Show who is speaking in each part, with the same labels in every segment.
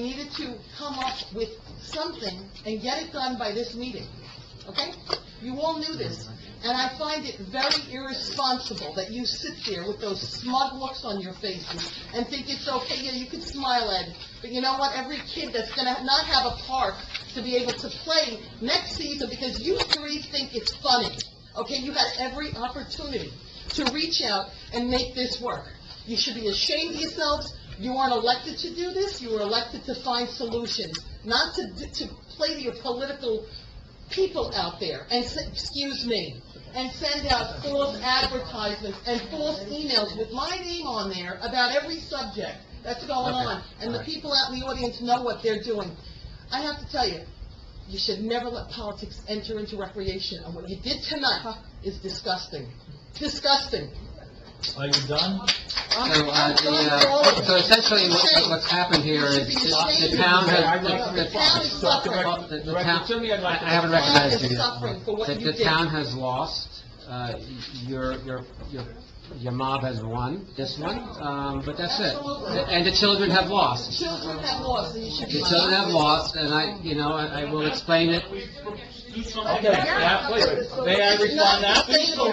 Speaker 1: We needed to come up with something and get it done by this meeting, okay? You all knew this, and I find it very irresponsible that you sit there with those smug looks on your faces and think it's okay, yeah, you can smile, Ed, but you know what? Every kid that's gonna not have a park to be able to play next season because you three think it's funny, okay? You had every opportunity to reach out and make this work. You should be ashamed of yourselves. You aren't elected to do this. You were elected to find solutions, not to, to play to your political people out there and, s- excuse me, and send out false advertisements and false emails with my name on there about every subject that's going
Speaker 2: Okay.
Speaker 1: on. And the
Speaker 2: All right.
Speaker 1: people out in the audience know what they're doing. I have to tell you, you should never let politics enter into recreation, and what you did tonight is disgusting. Disgusting.
Speaker 2: Are you done?
Speaker 1: I'm
Speaker 3: So, uh,
Speaker 1: I'm
Speaker 3: the,
Speaker 1: done with all
Speaker 3: uh,
Speaker 1: of
Speaker 3: so
Speaker 1: it.
Speaker 3: essentially, what- what's happened here is, is the town has, the-
Speaker 1: The town is
Speaker 3: the-
Speaker 1: suffering.
Speaker 3: the, the
Speaker 2: Director
Speaker 3: town,
Speaker 2: Timmy, I'd
Speaker 3: I
Speaker 2: like
Speaker 3: I
Speaker 2: to-
Speaker 3: haven't
Speaker 1: The town
Speaker 3: recognized
Speaker 1: is
Speaker 3: you yet.
Speaker 1: suffering for what
Speaker 3: The,
Speaker 1: you
Speaker 3: the
Speaker 1: did.
Speaker 3: town has lost, uh, your, your, your, your mob has won this one, um, but that's it.
Speaker 1: Absolutely.
Speaker 3: And the children have lost.
Speaker 1: Children have lost, and you should be...
Speaker 3: The children have lost, and I, you know, I I will explain it.
Speaker 2: Okay, yeah, please. May I respond now?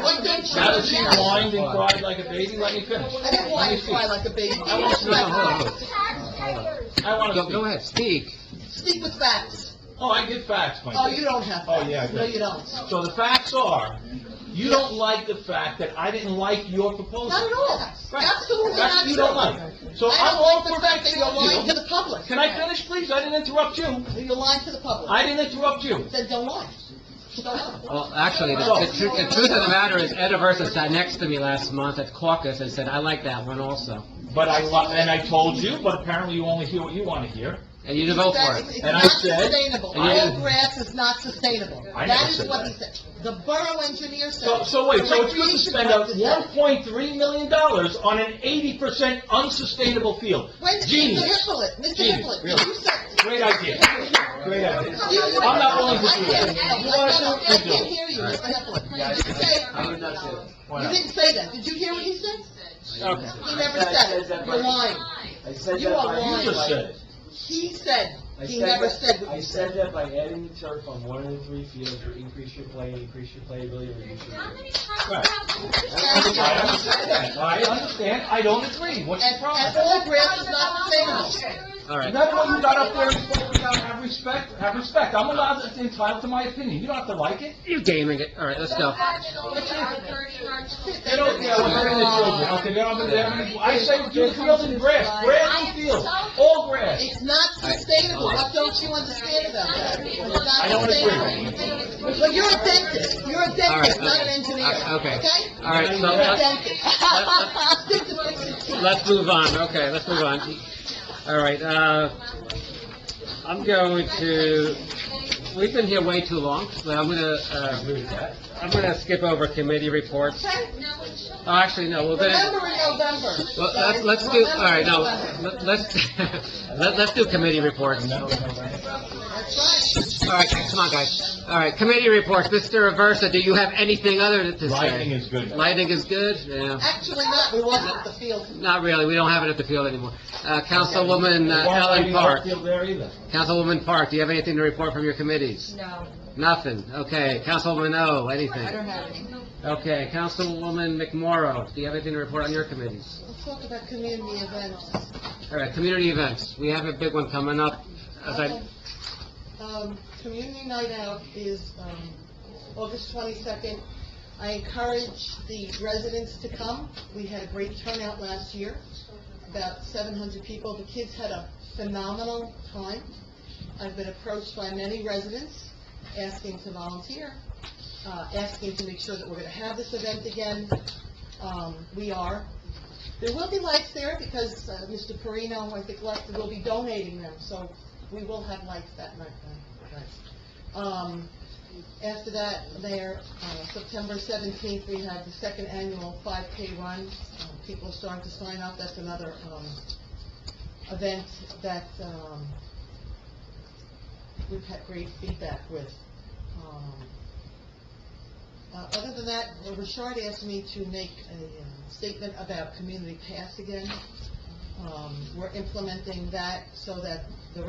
Speaker 1: What don't you
Speaker 2: Now that she
Speaker 1: do now?
Speaker 2: whined and cried like a baby, let me finish.
Speaker 1: I didn't want you to cry like a baby.
Speaker 2: I want you
Speaker 3: No, no, hold on, hold
Speaker 4: Taxpayers.
Speaker 2: I
Speaker 3: on.
Speaker 2: want to
Speaker 3: Go, go
Speaker 2: speak.
Speaker 3: ahead, speak.
Speaker 1: Speak with facts.
Speaker 2: Oh, I give facts, my
Speaker 1: Oh,
Speaker 2: dear.
Speaker 1: you don't have
Speaker 2: Oh,
Speaker 1: facts.
Speaker 2: yeah, I do.
Speaker 1: No, you don't.
Speaker 2: So the facts are, you don't like the fact that I didn't like your proposal.
Speaker 1: Not at all.
Speaker 2: Right.
Speaker 1: Absolutely
Speaker 2: That's
Speaker 1: not
Speaker 2: what you
Speaker 1: true.
Speaker 2: don't like. So
Speaker 1: I
Speaker 2: I'm
Speaker 1: don't
Speaker 2: all
Speaker 1: like the
Speaker 2: for
Speaker 1: fact that
Speaker 2: fixing
Speaker 1: you're lying to
Speaker 2: you.
Speaker 1: the public.
Speaker 2: Can I finish, please? I didn't interrupt you.
Speaker 1: You're lying to the public.
Speaker 2: I didn't interrupt you.
Speaker 1: Then don't lie. Don't lie.
Speaker 3: Well, actually, the, the tru- the truth of the matter is, Ed Aversa sat next to me last month at caucus and said, I like that one also.
Speaker 2: But I, lo- and I told you, but apparently you only hear what you want to hear.
Speaker 3: And you didn't vote for
Speaker 1: That's-
Speaker 3: it.
Speaker 1: It's
Speaker 2: And I
Speaker 1: not
Speaker 2: said-
Speaker 1: sustainable.
Speaker 3: And you-
Speaker 1: All grass is not sustainable.
Speaker 2: I never
Speaker 1: That is
Speaker 2: said
Speaker 1: what he
Speaker 2: that.
Speaker 1: said. The borough engineer said.
Speaker 2: So, so wait, so it's good to
Speaker 1: Recreation
Speaker 2: spend out
Speaker 1: Board
Speaker 2: one
Speaker 1: said-
Speaker 2: point three million dollars on an eighty percent unsustainable field?
Speaker 1: Wait, Mr.
Speaker 2: Genius,
Speaker 1: Hippolyte, Mr.
Speaker 2: Genius,
Speaker 1: Hippolyte,
Speaker 2: really.
Speaker 1: you said.
Speaker 2: great idea, great idea.
Speaker 1: you-
Speaker 2: I'm not willing to
Speaker 1: I
Speaker 2: do
Speaker 1: can't-
Speaker 2: that. You
Speaker 1: I
Speaker 2: want
Speaker 1: can't-
Speaker 2: to,
Speaker 1: I
Speaker 2: you do
Speaker 1: can't
Speaker 2: it.
Speaker 1: hear you, Mr. Hippolyte. You didn't say,
Speaker 2: Why
Speaker 1: you
Speaker 2: not?
Speaker 1: didn't say that. Did you hear what he said?
Speaker 2: Okay.
Speaker 1: He never said it. You're lying.
Speaker 5: I said
Speaker 1: You
Speaker 5: that
Speaker 1: are
Speaker 5: by-
Speaker 1: lying.
Speaker 2: You just said it.
Speaker 1: He said,
Speaker 5: I
Speaker 1: he
Speaker 5: said
Speaker 1: never
Speaker 5: that-
Speaker 1: said what
Speaker 5: I
Speaker 1: you
Speaker 5: said
Speaker 1: said.
Speaker 5: that by adding the turf on one of the three fields, you increase your play, increase your playability, reduce your.
Speaker 4: How many
Speaker 2: Right.
Speaker 4: times have we heard
Speaker 2: I understand that. I understand, I don't agree, what's the
Speaker 1: And, and
Speaker 2: problem?
Speaker 1: all grass is not sustainable.
Speaker 4: that?
Speaker 3: All right.
Speaker 2: That's why you got up there and spoke without, have respect, have respect, I'm allowed, to- entitled to my opinion, you don't have to like it.
Speaker 3: You're gaming it. All right, let's go.
Speaker 2: They don't care what's happening to children, okay, they don't, they don't, I say do the field in grass, grass and field, all grass.
Speaker 1: It's not sustainable. What don't you understand about that? It's
Speaker 2: I
Speaker 1: not
Speaker 2: don't
Speaker 1: sustainable. But you're a dentist. You're a
Speaker 3: All right,
Speaker 1: dentist, not an
Speaker 3: okay.
Speaker 1: engineer,
Speaker 3: Uh, okay.
Speaker 1: okay?
Speaker 3: All right, so
Speaker 1: You're a
Speaker 3: let's,
Speaker 1: dentist. Stick to fixing teeth.
Speaker 3: let's move on. Okay, let's move on. All right, uh, I'm going to, we've been here way too long, so I'm gonna, uh,
Speaker 2: agree with that.
Speaker 3: I'm gonna skip over committee reports.
Speaker 1: Okay?
Speaker 3: Oh, actually, no, we're gonna,
Speaker 1: Remember in November.
Speaker 3: well, let's, let's do, all right, no, let- let's, let- let's do committee reports. All
Speaker 1: That's right.
Speaker 3: right, come on, guys. All right, committee reports. Mr. Aversa, do you have anything other to say?
Speaker 2: Lighting is good.
Speaker 3: Lighting is good, yeah.
Speaker 1: Actually not, we wasn't at the field.
Speaker 3: Not really, we don't have it at the field anymore. Uh, Councilwoman uh,
Speaker 2: Why
Speaker 3: Ellen
Speaker 2: lighting
Speaker 3: Park,
Speaker 2: don't feel there either.
Speaker 3: Councilwoman Park, do you have anything to report from your committees?
Speaker 6: No,
Speaker 3: Nothing, okay. Councilwoman O, anything?
Speaker 6: I don't have any.
Speaker 3: Okay, Councilwoman McMorro, do you have anything to report on your committees?
Speaker 1: Let's talk about community events.
Speaker 3: All right, community events, we have a big one coming up. As I,
Speaker 1: Um, Community Night Out is, um, August twenty-second. I encourage the residents to come. We had a great turnout last year, about seven hundred people. The kids had a phenomenal time. I've been approached by many residents asking to volunteer, uh, asking to make sure that we're gonna have this event again. Um, we are. There will be lights there because, uh, Mr. Perino, I think, left, will be donating them, so we will have lights that night. uh, lights. Um, after that, there, uh, September seventeenth, we had the second annual five K run. Uh, People are starting to sign up, that's another, um, event that, um, we've had great feedback with. Um, uh, Other than that, um, Richard asked me to make a uh, statement about community pass again. Um, We're implementing that so that the